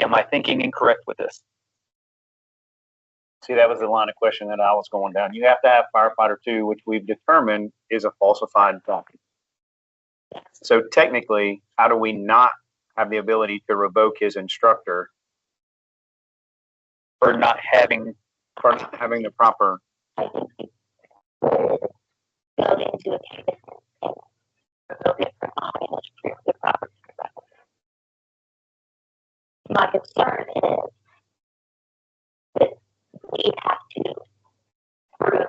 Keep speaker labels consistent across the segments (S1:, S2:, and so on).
S1: Am I thinking incorrect with this?
S2: See, that was the line of question that I was going down. You have to have firefighter two, which we've determined is a falsified document. So technically, how do we not have the ability to revoke his instructor
S1: For not having,
S2: for not having the proper?
S3: build into a campus and build it for knowledge, which prove the property. My concern is that we have to prove,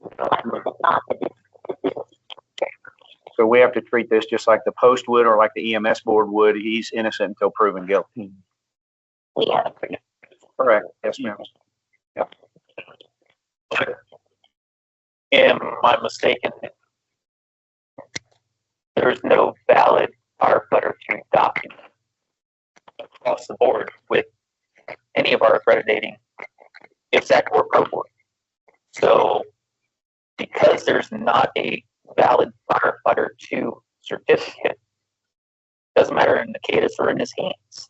S3: you know, like, this is not that this, this is
S2: So we have to treat this just like the post would or like the EMS board would. He's innocent until proven guilty.
S3: we have a pretty
S2: Correct. Yes, ma'am.
S1: am I mistaken? There is no valid firefighter two document across the board with any of our accrediting, except for pro board. So because there's not a valid firefighter two certificate, doesn't matter in Nikitas or in his hands.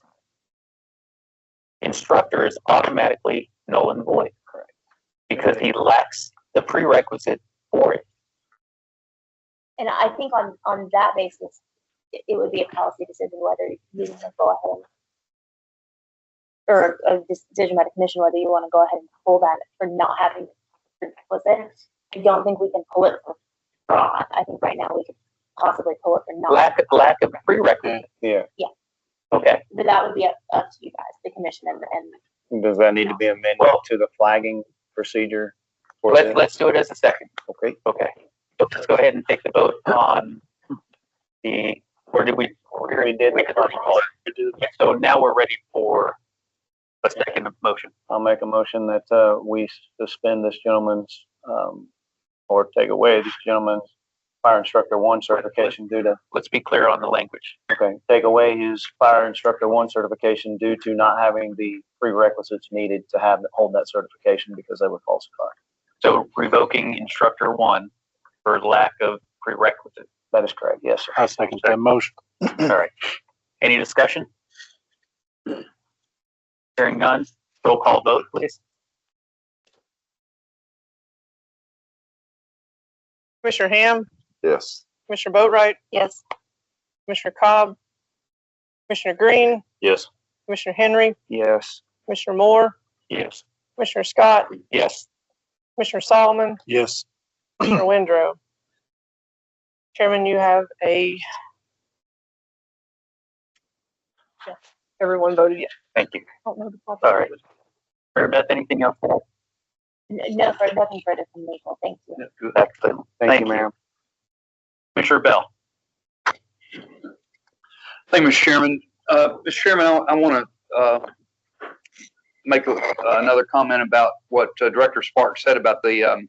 S1: Instructor is automatically null and void. Because he lacks the prerequisite for it.
S3: And I think on, on that basis, it, it would be a policy decision whether you want to go ahead and- or a decision by the commission whether you want to go ahead and pull that for not having prerequisite. I don't think we can pull it for fraud. I think right now we could possibly pull it for not,
S1: Lack, lack of prerequisite.
S2: Yeah. Mm.
S1: Okay,
S3: but that would be up, up to you guys, the commission and, and
S2: Does that need to be amended
S1: Well-
S2: to the flagging procedure? for
S1: let's,
S2: this?
S1: let's do it as a second.
S2: Okay.
S1: Okay. So Let's go ahead and take the vote on the, where did we? where-
S2: We did.
S1: We did already call it. So now we're ready for a second motion.
S2: I'll make a motion that uh, we suspend this gentleman's, um, or take away this gentleman's fire instructor one certification due to,
S1: Let's be clear on the language.
S2: okay, take away his fire instructor one certification due to not having the prerequisites needed to have, hold that certification because they were falsified.
S1: So revoking instructor one for lack of prerequisite.
S2: That is correct, yes, sir.
S4: I second that motion.
S1: All right. Any discussion? Hearing none, roll call vote, please.
S5: Commissioner Ham,
S4: Yes.
S5: Commissioner Boatright,
S3: yes,
S5: Commissioner Cobb, Commissioner Green,
S4: Yes.
S5: Commissioner Henry,
S2: Yes,
S5: Commissioner Moore,
S1: Yes.
S5: Commissioner Scott,
S1: Yes.
S5: Commissioner Solomon,
S4: Yes.
S5: Commissioner Windrow. Chairman, you have a. Yeah, Everyone voted yes.
S1: Thank you.
S5: Don't know the problem.
S1: All right. Mary Beth, anything else?
S3: N- no, for nothing further from legal, thank you.
S1: Excellent.
S2: thank you,
S1: Thank you.
S2: ma'am.
S1: Commissioner Bell.
S6: Thank you, Mr. Chairman. Uh, Mr. Chairman, I, I want to, uh, make a- another comment about what uh, Director Sparks said about the, um,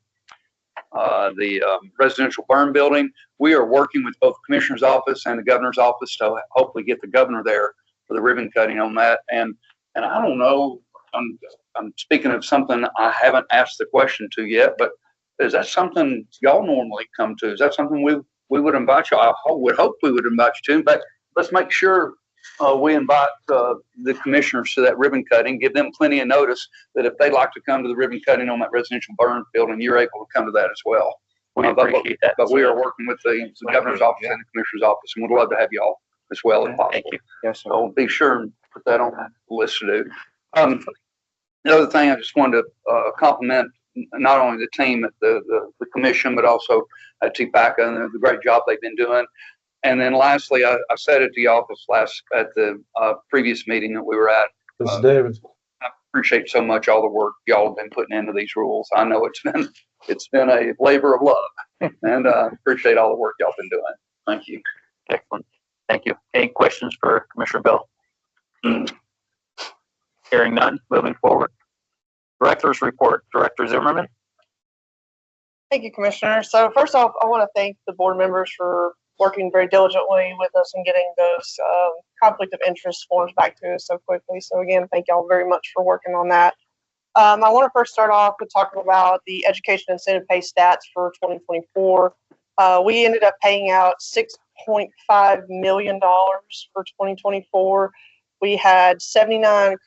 S6: uh, the, um, residential burn building. We are working with both Commissioner's Office and the Governor's Office to hopefully get the governor there for the ribbon cutting on that. And, and I don't know, I'm, I'm speaking of something I haven't asked the question to yet, but is that something y'all normally come to? Is that something we, we would invite you? I ho- would hope we would invite you to, but let's make sure uh, we invite uh, the commissioners to that ribbon cutting, give them plenty of notice that if they'd like to come to the ribbon cutting on that residential burn building, you're able to come to that as well.
S1: We
S6: Uh, but-
S1: appreciate that.
S6: But we are working with the the governor's office and the commissioner's office, and we'd love to have y'all as well if
S1: Thank
S6: possible.
S1: you.
S2: Yes, sir.
S6: So be sure and put that on the list to do. Um, the other thing, I just wanted to, uh, compliment n- not only the team at the, the, the commission, but also at TPACA and the great job they've been doing. And then lastly, I, I said at the office last, at the, uh, previous meeting that we were at, uh,
S4: Mr. Davis.
S6: appreciate so much all the work y'all have been putting into these rules. I know it's been, it's been a labor of love and, uh, appreciate all the work y'all been doing. Thank you.
S1: Excellent. Thank you. Any questions for Commissioner Bell? Hearing none, moving forward. Director's report, Director Zimmerman.
S5: Thank you, Commissioner. So first off, I want to thank the board members for working very diligently with us and getting those um, conflict of interest forms back to us so quickly. So again, thank y'all very much for working on that. Um, I want to first start off with talking about the education incentive pay stats for 2024. Uh, we ended up paying out $6.5 million for 2024, we had 79